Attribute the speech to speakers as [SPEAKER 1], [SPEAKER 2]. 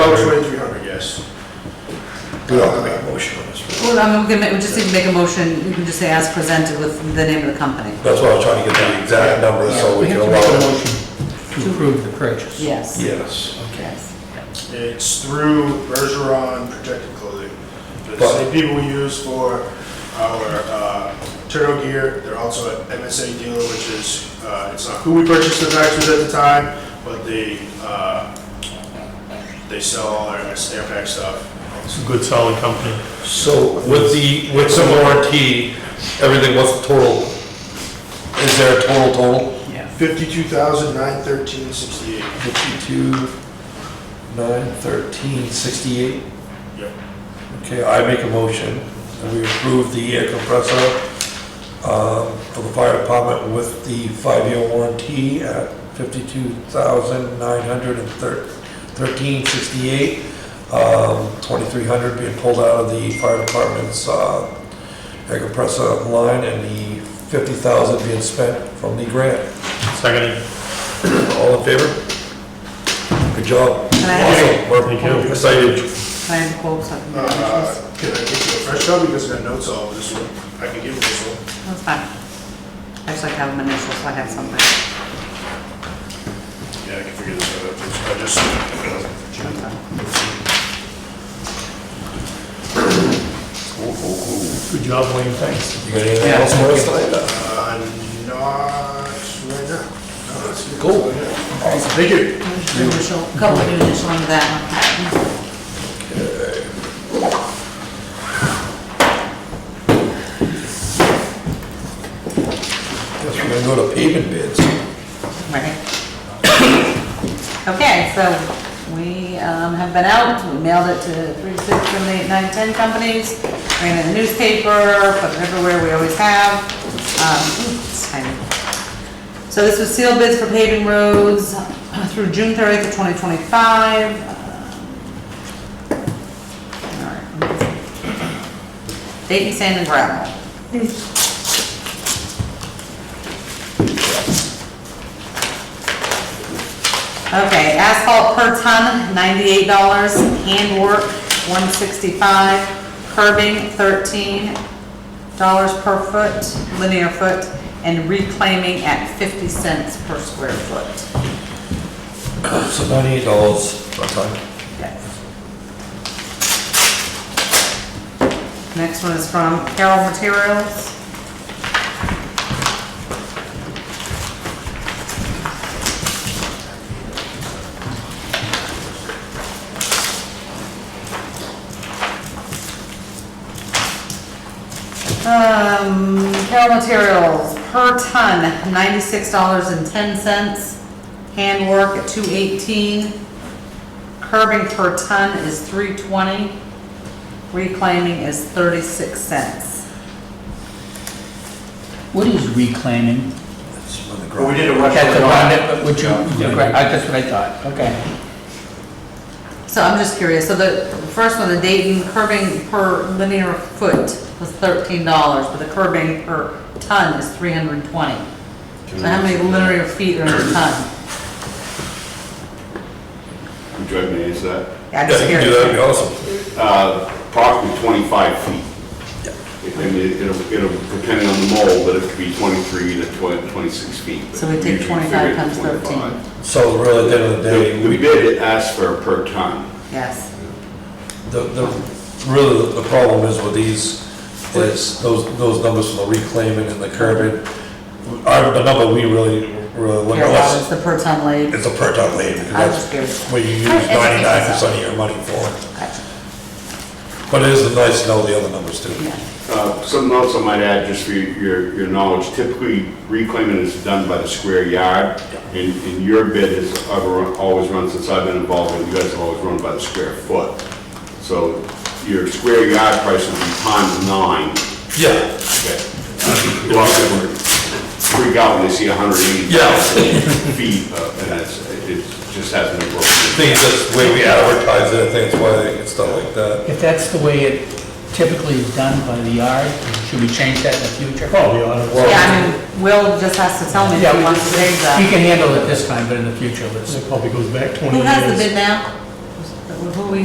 [SPEAKER 1] Approximately three hundred, yes.
[SPEAKER 2] We don't have to make a motion on this.
[SPEAKER 3] Well, I'm gonna, make- we just need to make a motion, you can just say as presented with the name of the company.
[SPEAKER 2] That's why I was trying to get the exact number so we
[SPEAKER 4] We
[SPEAKER 2] can
[SPEAKER 4] have to
[SPEAKER 2] allow
[SPEAKER 4] make a
[SPEAKER 2] it.
[SPEAKER 4] motion to approve the purchase.
[SPEAKER 3] Yes.
[SPEAKER 2] Yes.
[SPEAKER 3] Yes.
[SPEAKER 1] It's through Bergeron Protective Clothing. They're The
[SPEAKER 2] But-
[SPEAKER 1] same people we use for our uh, turtle gear, they're also an MSA dealer, which is, uh, it's not who we purchased the bags with at the time, but they, uh, they sell all our snare pack stuff.
[SPEAKER 5] It's a good solid company.
[SPEAKER 2] So with the, with some warranty, everything, what's the total? Is there a total total?
[SPEAKER 1] Fifty-two thousand nine thirteen sixty-eight.
[SPEAKER 2] Fifty-two, nine, thirteen, sixty-eight.
[SPEAKER 1] Yep.
[SPEAKER 2] Okay, I make a motion that we approve the air compressor um, for the fire department with the five-year warranty at fifty-two thousand nine hundred and thirteen sixty-eight. Um, Twenty-three hundred being pulled out of the fire department's uh, air compressor line and the fifty thousand being spent from the grant.
[SPEAKER 5] Second,
[SPEAKER 2] All in favor? Good job.
[SPEAKER 3] Can I have-
[SPEAKER 2] Awesome.
[SPEAKER 5] Thank you.
[SPEAKER 2] We're excited.
[SPEAKER 3] Can I have a quote, so I can
[SPEAKER 1] Uh,
[SPEAKER 3] make a
[SPEAKER 1] Can I get you a fresh copy, because I got notes all over this one, I can give you this one.
[SPEAKER 3] choice? That's fine. I just like to have them initial, so I have something.
[SPEAKER 1] Yeah, I can figure this out, I uh, just,
[SPEAKER 3] That's fine.
[SPEAKER 5] good job, Wayne, thanks.
[SPEAKER 2] You got anything else for us tonight?
[SPEAKER 1] uh, not right now. No, that's good.
[SPEAKER 2] Cool.
[SPEAKER 1] Thank you.
[SPEAKER 3] Initial, couple of initial on that one.
[SPEAKER 2] Guess we're gonna go to paving bids.
[SPEAKER 3] Right. Okay, so we um, have been out, we mailed it to three, six, seven, eight, nine, ten companies, ran it in the newspaper, put it everywhere, we always have. Um, oops, tiny. So this was sealed bids for paving roads through June thirtieth of twenty twenty-five. Dayton sand and gravel. Okay, asphalt per ton, ninety-eight dollars, handwork, one sixty-five, curbing, thirteen dollars per foot, linear foot, and reclaiming at fifty cents per square foot.
[SPEAKER 2] So ninety-eight dollars a ton.
[SPEAKER 3] Yes. Next one is from Carroll Materials. Um, Carroll Materials, per ton, ninety-six dollars and ten cents. Handwork at two eighteen. Curbing per ton is three twenty. Reclaiming is thirty-six cents.
[SPEAKER 4] What is reclaiming?
[SPEAKER 2] That's when the
[SPEAKER 6] Well, we
[SPEAKER 2] ground-
[SPEAKER 6] did a rush
[SPEAKER 4] That's the
[SPEAKER 6] on
[SPEAKER 4] one
[SPEAKER 6] that.
[SPEAKER 4] that, Uh, would you,
[SPEAKER 5] Yeah.
[SPEAKER 4] right, I- that's what I thought, okay.
[SPEAKER 3] So I'm just curious, so the first one, the Dayton curbing per linear foot was thirteen dollars, but the curbing per ton is three hundred and twenty. So how many linear feet are in a ton?
[SPEAKER 7] Would you like me to answer that?
[SPEAKER 3] Yeah,
[SPEAKER 2] Yeah,
[SPEAKER 3] I'm just
[SPEAKER 2] you can do that, it'd be
[SPEAKER 3] curious.
[SPEAKER 2] awesome.
[SPEAKER 7] Uh, Approximately 25 feet. I mean, it'll, it'll, depending on the mold, but it could be 23 to 20 26 feet. but
[SPEAKER 3] So we take
[SPEAKER 7] usually
[SPEAKER 3] 25
[SPEAKER 7] figure
[SPEAKER 3] times
[SPEAKER 7] 25.
[SPEAKER 3] 13.
[SPEAKER 2] So really, at the end of the
[SPEAKER 7] The the
[SPEAKER 2] day,
[SPEAKER 7] bid it asks for per ton.
[SPEAKER 3] Yes,
[SPEAKER 2] the, the, really, the- the problem is with these, is those, those numbers for the reclaiming and the curbing. Our, the number we really, really look
[SPEAKER 3] here, that was
[SPEAKER 2] at
[SPEAKER 3] the per ton lead.
[SPEAKER 2] is a per ton lane, because
[SPEAKER 3] I was
[SPEAKER 2] that's
[SPEAKER 3] just curious.
[SPEAKER 2] where you use
[SPEAKER 3] I- I think it's
[SPEAKER 2] ninety-nine percent of your money for.
[SPEAKER 3] Gotcha.
[SPEAKER 2] But it is nice to know the other numbers too.
[SPEAKER 3] Yeah.
[SPEAKER 7] Uh, Something else I might add, just for your, your knowledge, typically reclaiming is done by the square yard, and, and your bid has ever- always run, since I've been involved, with it, you guys have always run by the square foot. So your square yard price would be times nine.
[SPEAKER 2] Yeah,
[SPEAKER 7] Okay. A lot of people freak out when they see 180 feet, uh, and that's, it just hasn't been
[SPEAKER 2] I
[SPEAKER 7] broken.
[SPEAKER 2] think it's just the way we advertise it, I think it's why they get stuff like that.
[SPEAKER 4] If that's the way it typically is done by the yard, should we change that in the future?
[SPEAKER 5] Oh, we ought to-
[SPEAKER 3] Yeah, I mean, Will just has to tell me if
[SPEAKER 4] Yeah,
[SPEAKER 3] he
[SPEAKER 4] we
[SPEAKER 3] wants to change that.
[SPEAKER 4] can handle it this time, but in the future, let's.
[SPEAKER 5] It probably goes back 20
[SPEAKER 3] Who
[SPEAKER 5] years.
[SPEAKER 3] has the bid now? who we